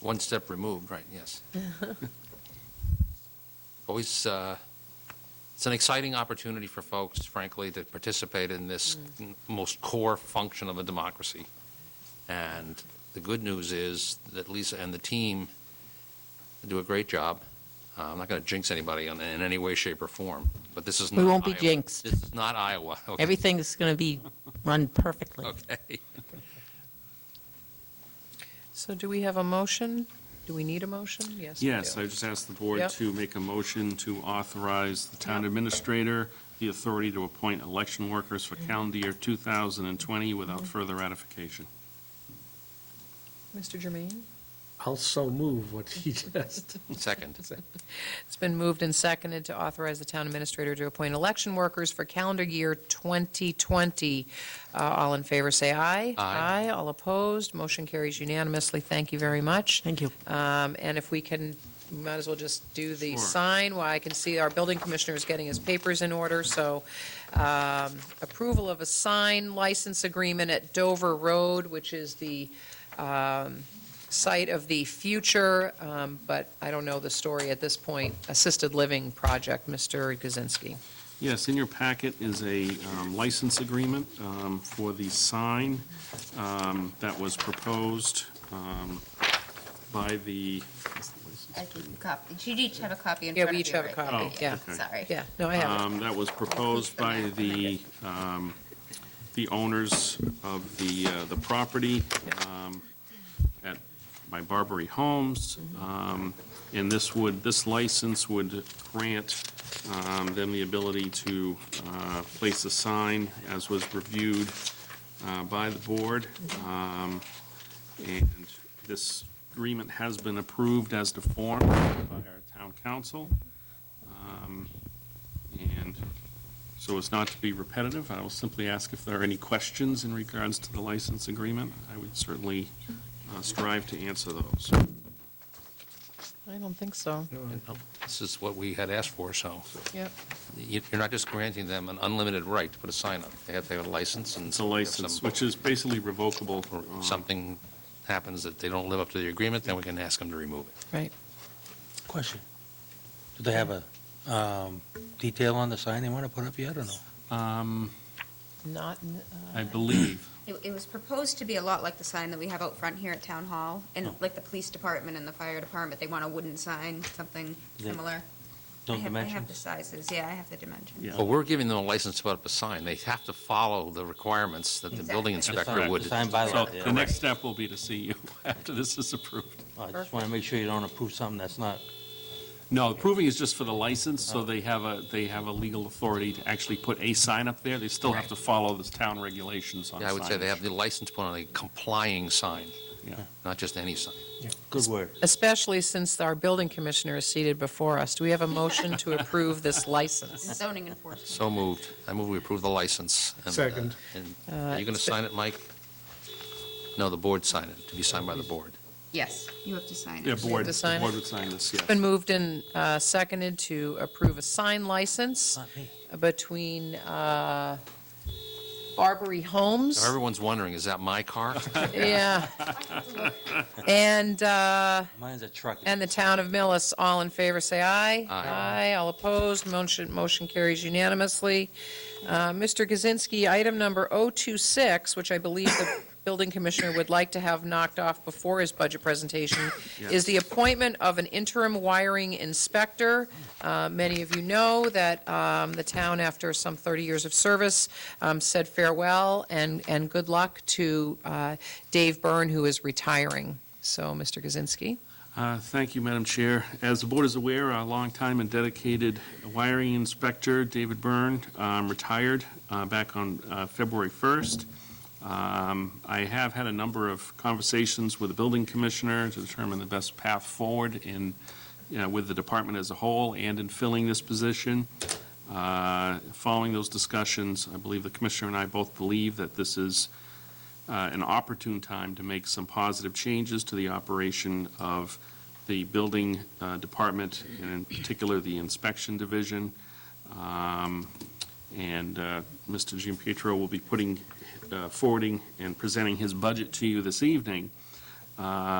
one step removed, right, yes. Always, uh, it's an exciting opportunity for folks, frankly, to participate in this Mm. m- most core function of a democracy. And the good news is that Lisa and the team do a great job. Uh, I'm not going to jinx anybody on- in any way, shape, or form, but this is We not won't be Iowa. jinxed. This is not Iowa, okay? Everything is going to be run perfectly. Okay. So do we have a motion? Do we need a motion? Yes. we Yes, do. I just asked the board Yep. to make a motion to authorize the town Yep. administrator the authority to appoint election workers for calendar year 2020 without Mm-hmm. further ratification. Mr. Jermaine? I'll so move what he just. Second. It's been moved and seconded to authorize the town administrator to appoint election workers for calendar year 2020. Uh, All in favor, say aye. Aye. Aye, all opposed, motion carries unanimously. Thank you very much. Thank you. Um, And if we can, we might as well just do the Sure. sign, while I can see our building commissioner is getting his papers in order, so um, approval of a sign license agreement at Dover Road, which is the um, site of the future, um, but I don't know the story at this point, assisted living project, Mr. Kaczynski. Yes, in your packet is a um, license agreement um, for the sign um, that was proposed um, by the, I can copy, you each have a copy in Yeah, front of we you, each have a right? copy, Oh, yeah. okay. Sorry. Yeah, no, I have it. um, that was proposed by the, um, the owners of the, uh, the property um, at my Barbary Homes. Um, And this would, this license would grant um, them the ability to uh, place a sign as was reviewed uh, by the board. Um, And this agreement has been approved as to form by our town council. Um, and so as not to be repetitive, I will simply ask if there are any questions in regards to the license agreement. I would certainly uh, strive to answer those. I don't think so, This is what we had asked for, so yeah. you- you're not just granting them an unlimited right to put a sign up. They have to have a license and. It's a license, if which is basically revocable. some- uh, Something happens that they don't live up to the agreement, then we can ask them to remove it. Right. Question. Do they have a um, detail on the sign they want to put up yet or no? um, Not, in the- I believe, It, it was proposed to be a lot like the sign that we have out front here at Town Hall, Oh. and like the police department and the fire department, they want a wooden sign, something Yeah. similar. I No have- I have the dimensions? sizes, yeah, I have the dimensions. yeah. But we're giving them a license to put up a sign. They have to follow the requirements that the building Exactly. The inspector sign- would. The sign by So law. the next step will be to see you after this is approved. I just want to make sure you don't approve something that's not, No, approving is just for the license, so they have a, they have a legal authority to actually put a sign up there. They still have to follow the town regulations on signage. Yeah, I would say they have the license put on a complying sign, Yeah. not just any sign. good word. especially since our building commissioner is seated before us. Do we have a motion to approve this license? Zoning enforcement. So moved. I move we approve the license. and, uh, Second. and- Are you going to sign it, Mike? No, the board signed it, to be signed by the board. Yes, you have to sign it. Yeah, board, to sign the it? board would sign this, yes. It's been moved and uh, seconded to approve a sign license Not me. between uh, Barbary Homes. Everyone's wondering, is that my car? Yeah. And, uh, Mine's a truck. and the town of Millis. All in favor, say aye. Aye. Aye, all opposed, motion, motion carries unanimously. Uh, Mr. Kaczynski, item number 026, which I believe the building commissioner would like to have knocked off before his budget presentation, is the appointment of an interim wiring inspector. Uh, Many of you know that um, the town, after some 30 years of service, um, said farewell and, and good luck to uh, Dave Byrne, who is retiring. So, Mr. Kaczynski? Uh, Thank you, Madam Chair. As the board is aware, our longtime and dedicated wiring inspector, David Byrne, um, retired uh, back on uh, February 1st. Um, I have had a number of conversations with the building commissioner to determine the best path forward in, you know, with the department as a whole and in filling this position. Uh, Following those discussions, I believe the commissioner and I both believe that this is uh, an opportune time to make some positive changes to the operation of the building uh, department, and in particular, the inspection division. Um, And uh, Mr. Giampietro will be putting, uh, forwarding and presenting his budget to you this evening. Uh,